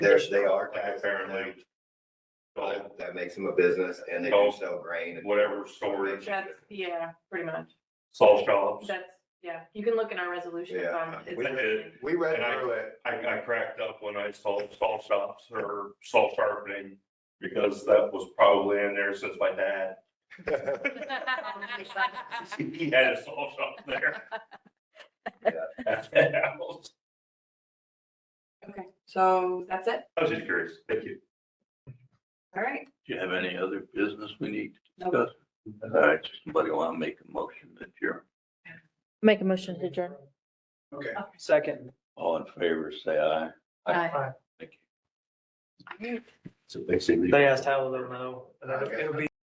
There, they are. Like apparently. So That makes them a business and they do Oh. sell grain. and- whatever storage, That's, yeah, pretty much. salt shops, That's, yeah, you can look in our resolutions Yeah. on. We did. We read And I- through it. I, I cracked up when I saw salt shops or salt sharpening. Because that was probably in there since my dad, he had a salt shop there. Yeah. At the house. Okay, so that's it, I was just curious, thank you. all right. Do you have any other business we need to Nope. discuss? All right, somebody want to make a motion that you're Make a motion to adjourn. Second. all in favor, say aye. Bye. Thank you. So basically. They asked how they'll know. and it'll- it'll be